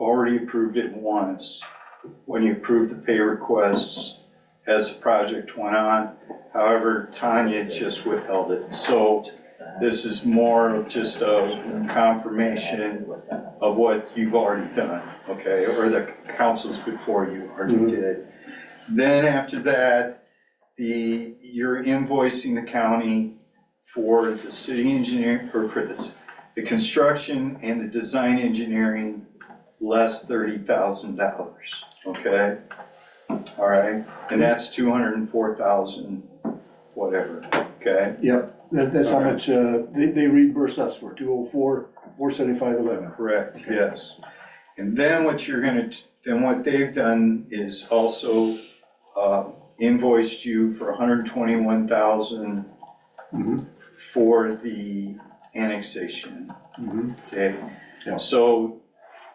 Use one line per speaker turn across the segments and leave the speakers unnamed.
already approved it once, when you approved the pay requests as the project went on. However, Tanya just withheld it, so this is more of just a confirmation of what you've already done, okay, or the councils before you already
Mhm.
did. Then after that, the, you're invoicing the county for the city engineer, or for this, the construction and the design engineering, less thirty thousand dollars, okay? All right, and that's two hundred and four thousand, whatever, okay?
Yep, that, that's how much, uh, they, they reimburse us for, two oh four, four seventy-five eleven.
Correct, yes. And then what you're gonna, t- then what they've done is also uh, invoiced you for hundred and twenty-one thousand
Mhm.
for the annexation,
Mm-hmm.
okay?
Yeah.
So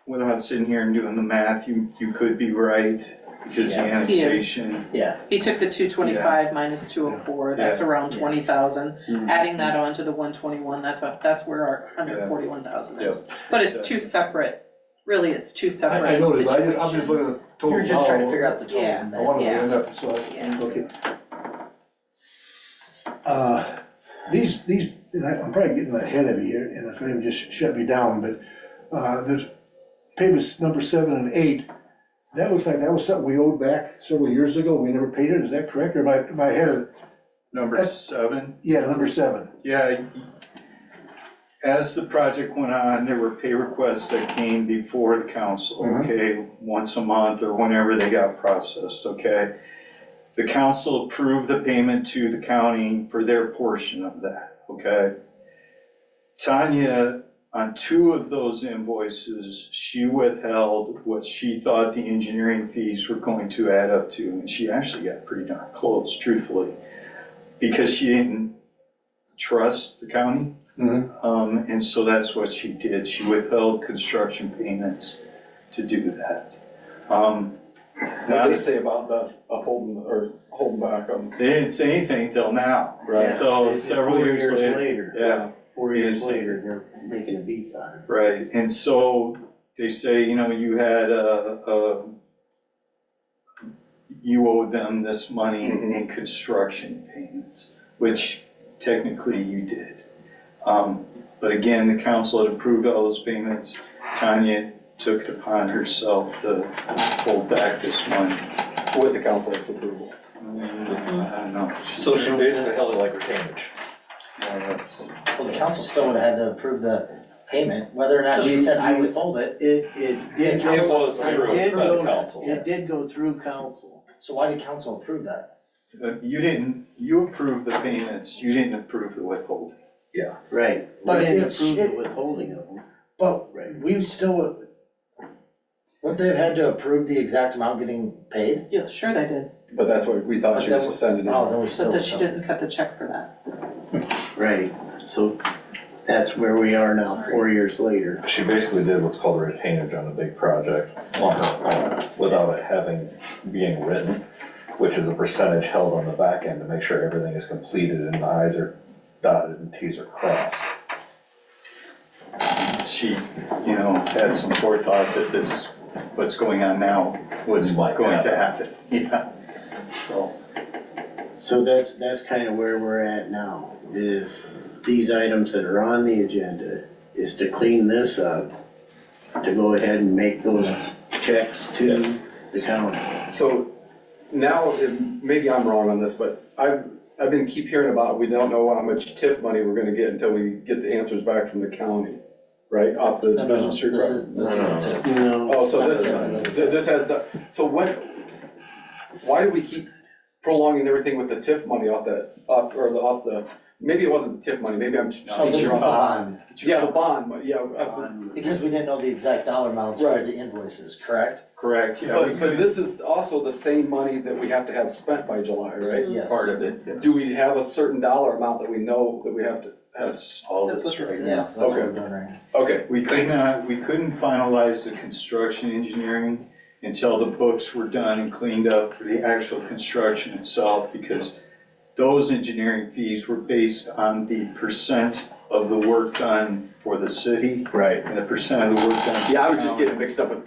without sitting here and doing the math, you, you could be right because the
Yeah.
He is.
annexation,
Yeah,
He took the two twenty-five minus two oh four, that's around
Yeah.
twenty thousand,
Mhm.
adding that on to the one twenty-one, that's a, that's where our hundred forty-one thousand is. But it's two separate, really, it's
I,
two
I
separate
know,
situations.
but I, I'm just looking at the total.
you're just trying to
now.
figure out the total.
Yeah.
I wanna
Yeah.
end up, so,
Yeah.
I- okay. Uh, These, these, and I- I'm probably getting ahead of you, here, and if anyone just shut me down, but, uh, there's payments number seven and eight. That looks like that was something we owed back several years ago, we never paid it, is that correct, or am I, am I ahead of,
number
That's-
seven.
yeah, number seven.
Yeah, as the project went on, there were pay requests that came before the council,
Mhm.
okay? Once a month or whenever they got processed, okay? The council approved the payment to the county for their portion of that, okay? Tanya, on two of those invoices, she withheld what she thought the engineering fees were going to add up to, and she actually got pretty darn close, truthfully. Because she didn't trust the county.
Mhm.
Um, and so that's what she did. She withheld construction payments to do that. Um,
What
now,
did they
they
say about us upholding, or holding back on,
didn't say anything till now.
Right.
So several
Four
years later, yeah,
Four
years
years later, they're making a beat on it.
right. And so they say, you know, you had a, a you owed them this money in construction payments, which technically you did. Um, But again, the council had approved all those payments. Tanya took it upon herself to hold back this money.
with the council's approval?
Mm, I don't know.
So she basically held it like retainage.
More or less.
Well, the council still would have had to approve the payment, whether or not we said I withhold it,
It, it did.
It
go-
was through,
it did
not
go-
council.
It did go through council.
so why did council approve that?
But You didn't, you approved the payments, you didn't approve the withholding.
Right.
But
We didn't
it's-
approve
it-
the withholding of them.
But
Right.
we still, wouldn't they have had to approve the exact amount getting paid?
Yeah, sure they did,
But that's what we thought she was sending in.
Oh, then we
but
still.
that she didn't cut the check for that.
Right, so that's where we are now, four years later.
She basically did what's called a retainage on a big project on her own without it having, being written, which is a percentage held on the back end to make sure everything is completed and the i's are dotted and t's are crossed.
She, you know, had some forethought that this, what's going on now was
Might
going to happen.
happen.
Yeah, so.
So that's, that's kind of where we're at now, is these items that are on the agenda, is to clean this up, to go ahead and make those checks to the county.
So now, it- maybe I'm wrong on this, but I've, I've been keep hearing about, we don't know how much TIF money we're gonna get until we get the answers back from the county, right, off the
No, no, no,
Pleasant
this
Street
is,
project?
this is a tip.
You know,
Oh, so
It's
this,
not a-
th- this has the, so when, why do we keep prolonging everything with the TIF money off that, off, or the, off the, maybe it wasn't the TIF money, maybe I'm.
No,
So this is the bond,
Yeah, the bond, but yeah, uh, I-
because we didn't know the exact dollar amounts for
Right.
the invoices, correct?
Correct, yeah, we
but, but
could,
this is also the same money that we have to have spent by July, right?
Yes.
part of it, yeah.
Do we have a certain dollar amount that we know that we have to have?
that's all
That's
that's
what this
right now.
Yes, that's what
Okay.
we're doing right now.
Okay,
We could
Thanks.
not, we couldn't finalize the construction engineering until the books were done and cleaned up for the actual construction itself, because those engineering fees were based on the percent of the work done for the city
right.
and the percent of the work done. for
Yeah, I was
the
just
county.
getting mixed up with